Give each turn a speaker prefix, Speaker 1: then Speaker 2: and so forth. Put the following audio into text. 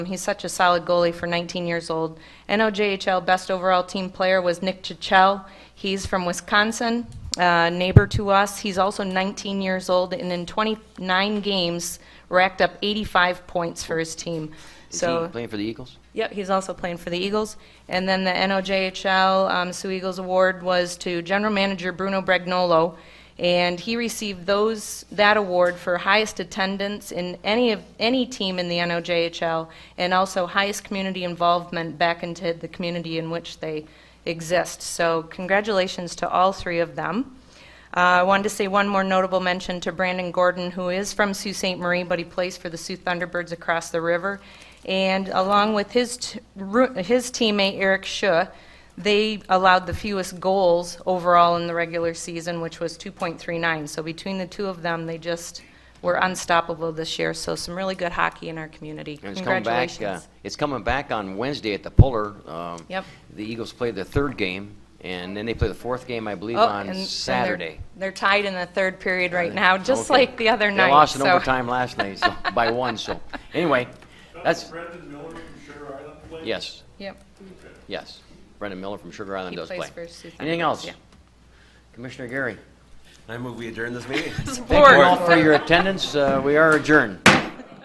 Speaker 1: He's such a solid goalie for 19 years old. NOJHL Best Overall Team Player was Nick Chichel. He's from Wisconsin, uh, neighbor to us. He's also 19 years old, and in 29 games, racked up 85 points for his team.
Speaker 2: Is
Speaker 1: So,
Speaker 2: he playing for the Eagles?
Speaker 1: Yep, he's also playing for the Eagles. And then the NOJHL um, Sioux Eagles Award was to General Manager Bruno Bregnolo, and he received those that award for highest attendance in any of any team in the NOJHL, and also highest community involvement back into the community in which they exist. So congratulations to all three of them. Uh, I wanted to say one more notable mention to Brandon Gordon, who is from Sault Ste. Marie, but he plays for the Sioux Thunderbirds across the river. And along with his, t- ru- his teammate Eric Schuh, they allowed the fewest goals overall in the regular season, which was 2.39. So between the two of them, they just were unstoppable this year. So some really good hockey in our community.
Speaker 2: And it's coming back. Uh,
Speaker 1: Congratulations.
Speaker 2: it's coming back on Wednesday at the Puller. Um,
Speaker 1: Yep.
Speaker 2: The Eagles play their third game, and then they play the fourth game, I believe,
Speaker 1: Oh,
Speaker 2: on
Speaker 1: and- and they're-
Speaker 2: Saturday. Uh,
Speaker 1: They're tied in the third period right now, just
Speaker 2: Okay.
Speaker 1: like the other night.
Speaker 2: They lost in
Speaker 1: so-
Speaker 2: overtime last night so, by one. So anyway, that's
Speaker 3: Brendan Miller from Sugar Island played?
Speaker 2: yes,
Speaker 1: Yep.
Speaker 2: yes. Brendan Miller from Sugar Island
Speaker 1: He
Speaker 2: does
Speaker 1: plays
Speaker 2: play.
Speaker 1: for Sioux
Speaker 2: Anything
Speaker 1: Thunderbirds,
Speaker 2: else?
Speaker 1: yeah.
Speaker 2: Commissioner Gary.
Speaker 4: I move we adjourn this meeting.
Speaker 2: Thank you all for your attendance. Uh, we are adjourned.